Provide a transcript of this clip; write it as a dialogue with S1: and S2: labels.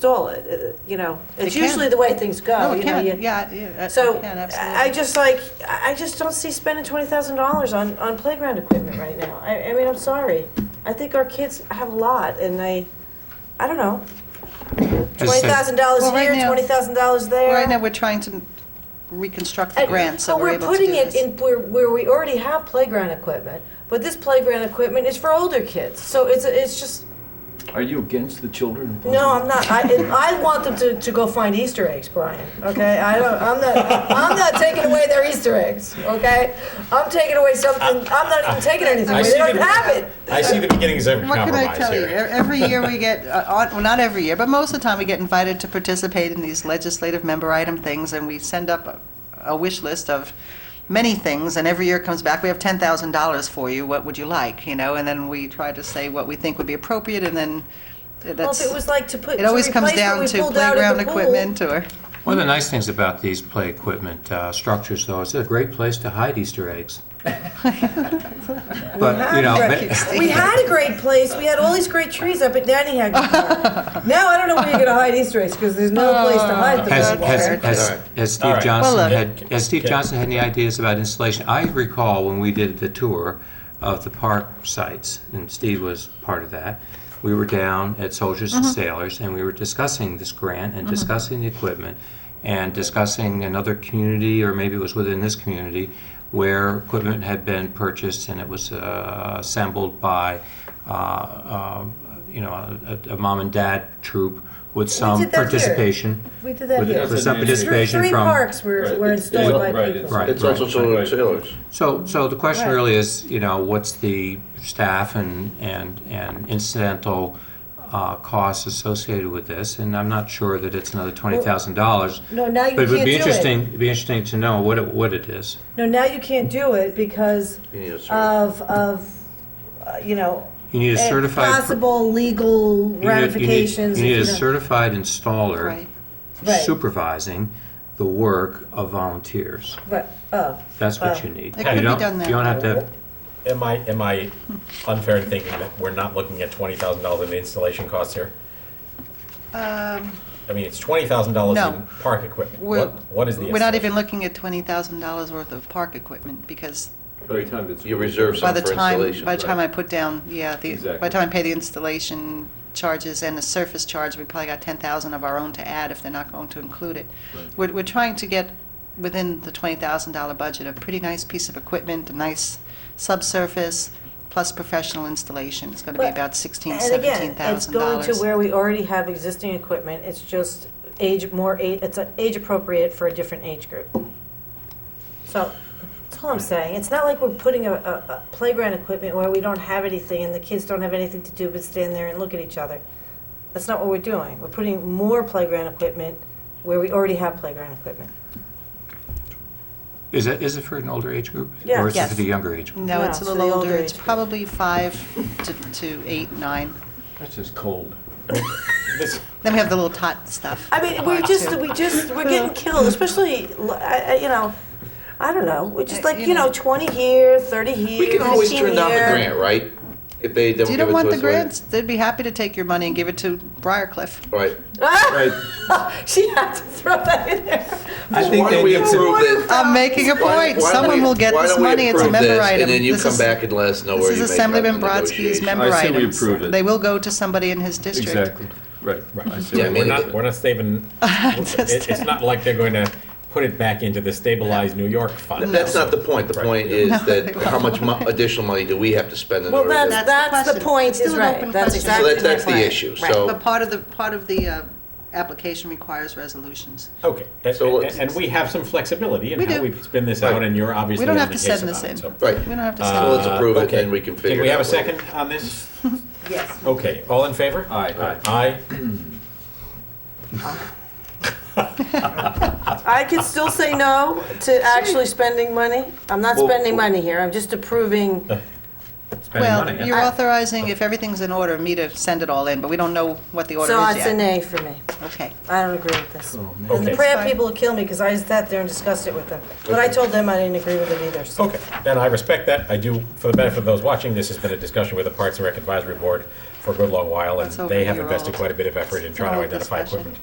S1: stole it, uh, you know, it's
S2: can.
S1: usually the way things go.
S2: No,
S1: you
S2: it
S1: know,
S2: can,
S1: you-
S2: yeah, yeah. it
S1: So
S2: can,
S1: I I
S2: absolutely.
S1: just like, I I just don't see spending twenty thousand dollars on, on playground equipment right now. I, I mean, I'm sorry. I think our kids have a lot and they, I don't know.
S3: As I
S1: Twenty
S3: said-
S1: thousand dollars
S2: Well, right
S1: here,
S2: now-
S1: twenty thousand dollars there.
S2: Right now, we're trying to reconstruct the
S1: And-
S2: grant, so
S1: but
S2: we're able to do
S1: putting it
S2: this.
S1: in where, where we already have playground equipment, but this playground equipment is for older kids. So it's, it's just,
S4: Are you against the children?
S1: No, I'm not. I, it- I want them to, to go find Easter eggs, Brian. Okay, I don't. I'm not. I'm not taking away their Easter eggs. Okay, I'm taking away something. I'm not even taking anything.
S5: I
S1: away.
S5: see
S1: They don't
S5: the-
S1: have it.
S5: I see the beginnings of
S2: What can I
S5: compromise
S2: tell you? E-
S5: here.
S2: Every year we get, uh, on- well, not every year, but most of the time we get invited to participate in these legislative member item things, and we send up a- a wish list of many things, and every year it comes back, we have $10,000 for you, what would you like, you know? And then we try to say what we think would be appropriate, and then uh,
S1: Well, if
S2: that's,
S1: it was like to put.
S2: it always
S1: to
S2: comes
S1: replace what
S2: down
S1: we
S2: to
S1: pulled out of
S2: playground
S1: the pool.
S2: equipment or...
S3: One of the nice things about these play equipment uh, structures, though, is they're a great place to hide Easter eggs. But, you know, but-
S1: We had a great place. We had all these great trees up at Nanny Hag. now I don't know where you're gonna hide Easter eggs because there's no place to hide them.
S3: has,
S1: anymore.
S3: has, has, has
S5: All
S3: Steve
S5: right.
S3: Johnson
S2: Well, uh,
S3: had, has Steve Johnson had any ideas about installation? I recall when we did the tour of the park sites, and Steve was part of that, we were down at Soldiers and Sailors, and we were discussing this grant and discussing the equipment and discussing another community, or maybe it was within this community, where equipment had been purchased and it was uh, assembled by, uh, um, you know, a, a a mom and dad troop with some
S1: did that here.
S3: participation.
S1: we did that
S3: with-
S1: here.
S3: With some
S4: That's an
S1: Three,
S3: participation
S1: three
S3: from.
S1: parks were, were installed by
S4: Right,
S1: people.
S4: it's-
S3: Right.
S6: It's also solar and sailors.
S3: So, so the question
S1: Right.
S3: really is, you know, what's the staff and, and, and incidental uh, costs associated with this? And I'm not sure that it's another twenty thousand dollars.
S1: No, now you
S3: But it would
S1: can't
S3: be
S1: do it.
S3: interesting, it'd be interesting to know what it, what it is.
S1: No, now you can't do it because
S6: You need a certi-
S1: of, of, uh, you know.
S3: You need a
S1: eh,
S3: certified-
S1: Possible legal
S3: You need- you need-
S1: ramifications.
S3: You
S1: if
S3: need a
S1: don't-
S3: certified installer
S2: Right.
S1: Right.
S3: supervising the work of volunteers.
S1: Right, oh,
S3: That's what
S1: Wow.
S3: you need.
S2: It
S3: You
S2: could be
S3: don't-
S2: done that
S3: You don't have to have
S5: Am I, am I unfair in thinking that we're not looking at twenty thousand dollars in installation costs here? I mean, it's twenty thousand dollars
S2: Um, No.
S5: in park equipment.
S2: We're-
S5: What, what is the?
S2: We're not
S5: installation?
S2: even looking at $20,000 worth of park equipment, because
S4: Every time it's.
S6: You reserve
S2: by
S6: some
S2: the
S6: for
S2: time,
S6: installation.
S2: by the time I
S4: right.
S2: put down, yeah, the, by
S4: Exactly.
S2: the time I pay the installation charges and the surface charge, we probably got ten thousand of our own to add if they're not going to include it. We're, we're trying to get within the twenty thousand dollar budget, a pretty nice piece of equipment, a nice subsurface, plus professional installation. It's gonna be
S1: But-
S2: about sixteen,
S1: and again,
S2: seventeen
S1: it's
S2: thousand
S1: going
S2: dollars.
S1: to where we already have existing equipment, it's just age, more, a- it's uh, age appropriate for a different age group. So, that's all I'm saying, it's not like we're putting a, a a playground equipment where we don't have anything and the kids don't have anything to do but stand there and look at each other. That's not what we're doing, we're putting more playground equipment where we already have playground equipment.
S3: Is it, is it for an older age group?
S1: Yeah.
S3: Or is it
S2: Yes.
S3: for the younger age? group?
S2: No,
S1: No,
S2: it's a
S1: so the
S2: little
S1: older
S2: older. It's
S1: age group.
S2: probably five to, to eight, nine.
S4: That's just cold.
S2: Then we have the little tot stuff.
S1: I mean,
S6: Oh,
S1: we're
S2: Tot,
S1: just,
S2: too.
S1: we just, we're getting killed, especially, I- I- you know, I don't know, we're just like, you know, 20 here, 30 here, 15
S6: We can always turn down the
S1: here.
S6: grant, right? If they don't
S2: Do you
S6: give it to us.
S2: don't want the
S6: right?
S2: grants? They'd be happy to take your money and give it to Briarcliff.
S6: Right.
S4: Right.
S1: She had to throw that in there.
S4: I
S6: Why
S4: think
S6: don't we
S4: they need
S6: approve
S4: to,
S6: this?
S2: I'm making a
S6: Why- why
S2: point.
S6: don't
S2: Someone
S6: we-
S2: will get
S6: why
S2: this
S6: don't we
S2: money. It's a
S6: approve
S2: member
S6: this,
S2: item.
S6: And then you
S2: This
S6: come
S2: is-
S6: back and let us know
S2: This
S6: where
S2: is
S6: you make out
S2: Assemblyman
S6: in the
S2: Brodsky's
S6: negotiation.
S2: member
S4: I say we
S2: items.
S4: approve it.
S2: They will go to somebody in his district.
S4: exactly, right, right. I see
S6: Yeah,
S4: what you're
S6: I mean,
S5: We're
S6: it-
S5: not, we're not saving, it- it's not like they're going to put it back into the stabilized New York fund.
S6: That's not the point. The point is that how much mo- additional money do we have to spend in
S1: Well,
S6: order to?
S1: that's, that's the
S2: question.
S1: point,
S2: Still
S1: is
S2: an
S1: right.
S2: open
S1: That's
S2: question.
S6: So
S1: exactly
S6: that's, that's
S1: my
S6: the
S1: point.
S6: issue,
S1: Right.
S2: But
S6: so,
S2: part of the, part of the uh, application requires resolutions.
S5: Okay, and,
S6: So
S5: and-
S6: let's-
S5: and we have some flexibility in
S2: We
S5: how
S2: do.
S5: we spin this
S6: Right.
S5: out, and you're obviously
S2: We don't
S5: on
S2: have to
S5: the case
S2: send this
S5: about it,
S2: in.
S5: so-
S6: right.
S2: We don't
S4: Uh,
S2: have to
S6: So
S2: send
S6: let's
S2: it.
S6: approve it,
S5: Okay.
S6: and we can figure it out.
S5: Did we have a
S6: later.
S5: second on this?
S1: Yes.
S5: Okay, all in favor?
S4: Aye.
S5: Aye.
S1: I could still say no to actually spending money. I'm not
S4: Well-
S6: Uh-huh.
S1: spending money here, I'm just approving
S3: spending money.
S2: Well, you're authorizing, if everything's in order, me to send it all in, but we don't know what the order
S1: So
S2: is
S1: it's a
S2: yet.
S1: nay for me.
S2: Okay.
S1: I don't agree with this.
S4: Oh, man.
S1: And the
S5: Okay.
S1: crab
S2: Fine.
S1: people will kill me because I sat there and discussed it with them. But I
S5: Okay.
S1: told them I didn't agree with it either, so.
S5: Okay, and I respect that. I do, for the benefit of those watching, this has been a discussion with the Parks and Rec Advisory Board for a good long while, and
S2: That's over
S5: they
S2: a
S5: have
S2: year
S5: invested
S2: old.
S5: quite a bit of effort in trying to
S2: Old
S5: identify
S2: discussion.
S5: equipment.